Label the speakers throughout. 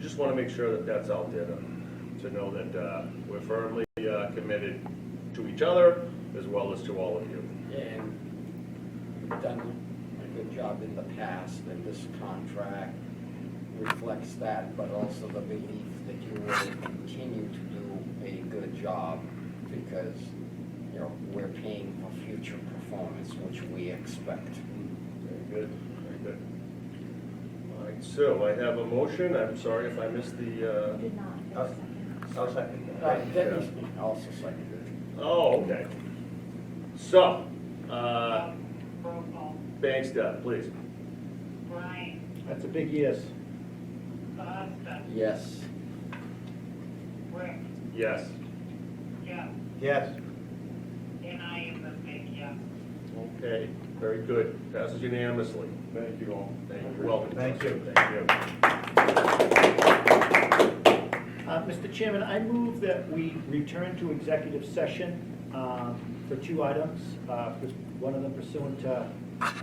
Speaker 1: just wanna make sure that that's out there to, to know that, uh, we're firmly, uh, committed to each other as well as to all of you.
Speaker 2: And we've done a good job in the past, and this contract reflects that, but also the belief that you will continue to do a good job because, you know, we're paying for future performance, which we expect.
Speaker 1: Very good, very good. All right, so I have a motion, I'm sorry if I missed the, uh,
Speaker 3: Did not.
Speaker 4: Oh. I'll
Speaker 2: Uh,
Speaker 4: second.
Speaker 2: Debbie's also seconded.
Speaker 1: oh, okay. So, uh,
Speaker 5: Roll call.
Speaker 1: thanks, Deb, please.
Speaker 5: Brian,
Speaker 4: That's a big yes.
Speaker 5: Costa,
Speaker 2: Yes,
Speaker 5: Rick,
Speaker 1: Yes.
Speaker 5: Jeff,
Speaker 4: Yes.
Speaker 5: and I am a big yes.
Speaker 1: Okay, very good. Passes unanimously. Thank you all. Thank you. Welcome.
Speaker 4: Thank you.
Speaker 1: Thank you.
Speaker 4: Uh, Mr. Chairman, I move that we return to executive session um, for two items, uh, pers- one of them pursuant to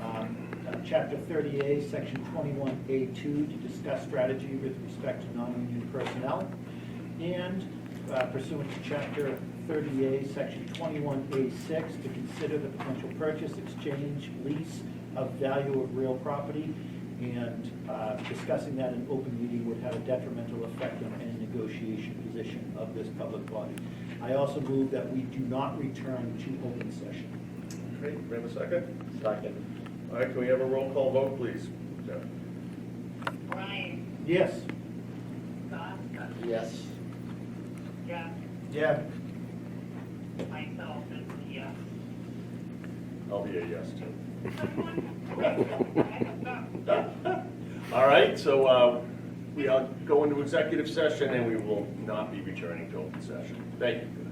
Speaker 4: um, uh, Chapter 30A, Section 21A2, to discuss strategy with respect to non-union personnel, and uh, pursuant to Chapter 30A, Section 21A6, to consider the potential purchase, exchange, lease of value of real property, and uh, discussing that in open meeting would have a detrimental effect on any negotiation position of this public body. I also move that we do not return to open session.
Speaker 1: Okay, we have a second?
Speaker 2: second.
Speaker 1: All right, can we have a roll call vote, please? Jeff?
Speaker 5: Brian,
Speaker 4: Yes?
Speaker 5: Costa,
Speaker 2: Yes.
Speaker 5: Jeff,
Speaker 4: Yeah.
Speaker 5: myself is a yes.
Speaker 1: I'll be a yes too.
Speaker 5: Yes.
Speaker 1: All right, so uh, we are going to executive session and we will not be returning to open session. Thank you.